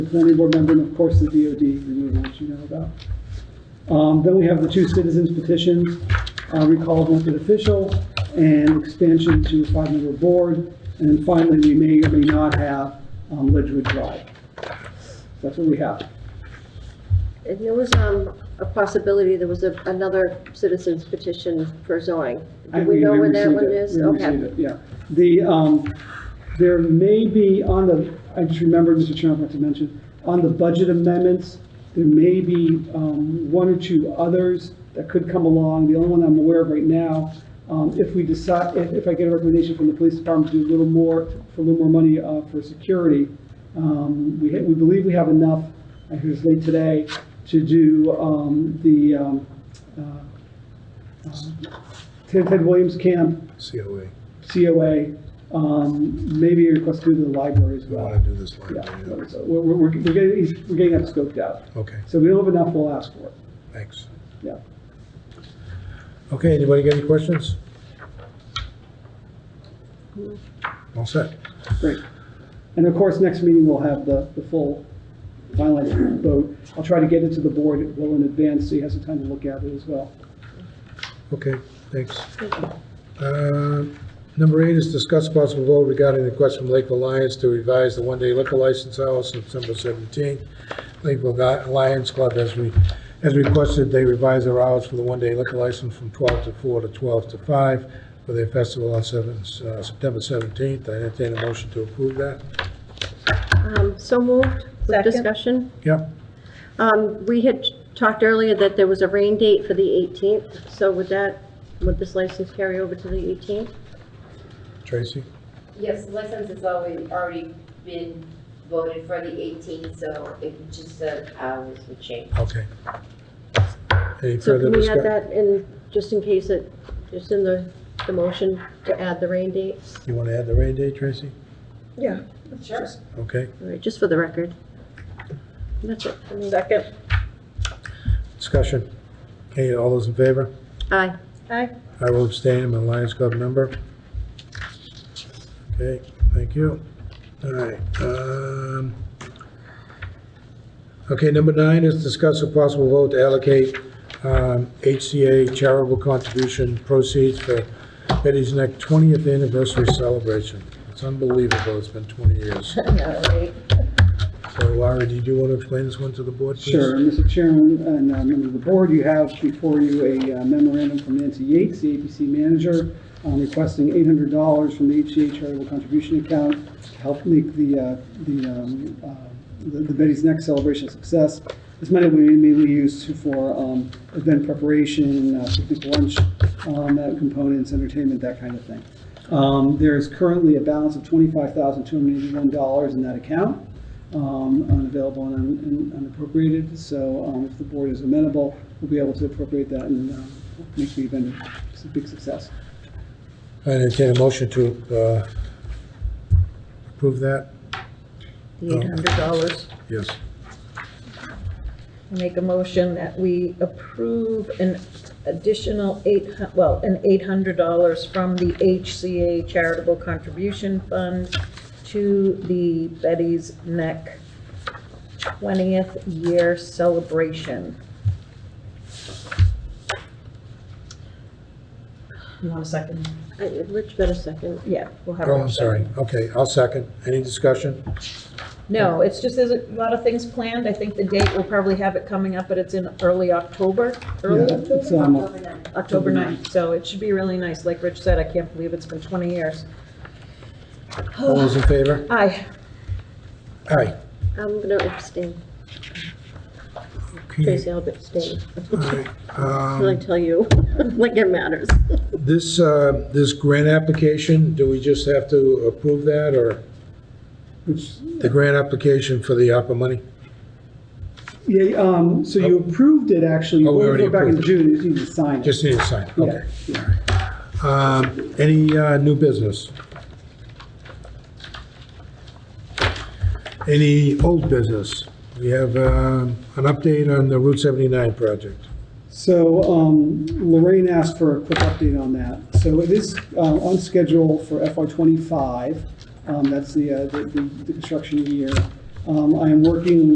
the planning board member, and of course, the DOD removal, which you know about. Um, Then we have the two citizens petitions, uh, recall of elected official, and expansion to a five-member board. And then finally, we may or may not have um, Ledgewood Drive. That's what we have. And there was, um, a possibility, there was a, another citizen's petition for zoning. Do we know where that received one it. is? We received Okay. it, Yeah, the, um, there may be on the, I just remembered, Mr. Chairman, I forgot to mention, on the budget amendments, there may be, um, one or two others that could come along. The only one I'm aware of right now, um, if we decide, if, if I get a recommendation from the police department to do a little more, for a little more money, uh, for security, um, we, ha- we believe we have enough, I heard it late today, to do, um, the, um, uh, Ted Ted Williams Camp, COA. COA, um, maybe a request through the library as We well. want to do this Yeah, library. so we're, we're, we're getting, we're getting that scoped out. Okay, So if we don't have enough, we'll ask for it, thanks. yeah. Okay, anybody got any questions? All set. Great. And of course, next meeting, we'll have the, the full finalized vote. I'll try to get it to the board well in advance, so you have some time to look at it as well. Okay, thanks. Uh, Number eight is discuss possible vote regarding the request from Lakeville Lions to revise the one-day liquor license hours September 17th. Lakeville Li- Lions Club has re- has requested they revise their hours for the one-day liquor license from 12 to 4 to 12 to 5 for their festival on 7, uh, September 17th. I entertain a motion to approve that. Um, so moved with Second. discussion. Yep, Um, we had talked earlier that there was a rain date for the 18th, so would that, would this license carry over to the 18th? Tracy? Yes, the license has always, already been voted for the 18th, so it just, uh, the hours would change. Okay. Any So further can we add discussion? that in, just in case it, just in the, the motion to add the rain date? You want to add the rain date, Tracy? Yeah. Sure. Okay. All right, just for the record. That's it for me. Second. Discussion. Okay, all those in favor? Aye. Aye. I will abstain, I'm a Lions Club member. Okay, thank you. All right. um, Okay, number nine is discuss a possible vote to allocate um, HCA charitable contribution proceeds for Betty's Neck 20th anniversary celebration. It's unbelievable, it's been 20 years. So Laura, did you want to explain this one to the board, please? Sure, Mr. Chairman and uh, members of the board, you have before you a uh, memorandum from Nancy Yates, the APC manager, um, requesting $800 from the HCA charitable contribution account to help make the, uh, the, um, uh, the the Betty's Neck celebration a success. This money will be mainly used to- for um, event preparation, uh, picnic lunch, um, uh, components, entertainment, that kind of thing. Um, There is currently a balance of $25,281 in that account um, unavailable and un- and unappropriated, so um, if the board is amenable, we'll be able to appropriate that and um, make the event a big success. I entertain a motion to uh, approve that? the eight hundred dollars. Yes. Make a motion that we approve an additional eight, hu- well, an eight hundred dollars from the HCA Charitable Contribution Fund to the Betty's Neck twentieth year celebration. You want a second? I- Rich better second. Yeah, we'll have. Oh, Rob I'm sorry. Okay, I'll second. Any discussion? No, it's just, there's a lot of things planned. I think the date, we'll probably have it coming up, but it's in early October, early Yeah, it's, um, October 9th. October 9th. So it should be really nice. Like Rich said, I can't believe it's been 20 years. All those in favor? Aye. Aye. I'm gonna abstain. Okay. Tracy, I'll abstain. all right. Till I Um, tell you, like it matters. This, uh, this grant application, do we just have to approve that, or Which, the grant application for the ARPA money? yeah, um, so you approved it, actually, Oh, we already back in approved it. June, you need to sign it. Just need to sign, Yeah. okay. Um, Any uh, new business? Any old business? We have um, an update on the Route 79 project. So um, Lorraine asked for a quick update on that. So it is uh, on Um, schedule for FY '25. That's the, uh, the the- the construction year. Um, I am working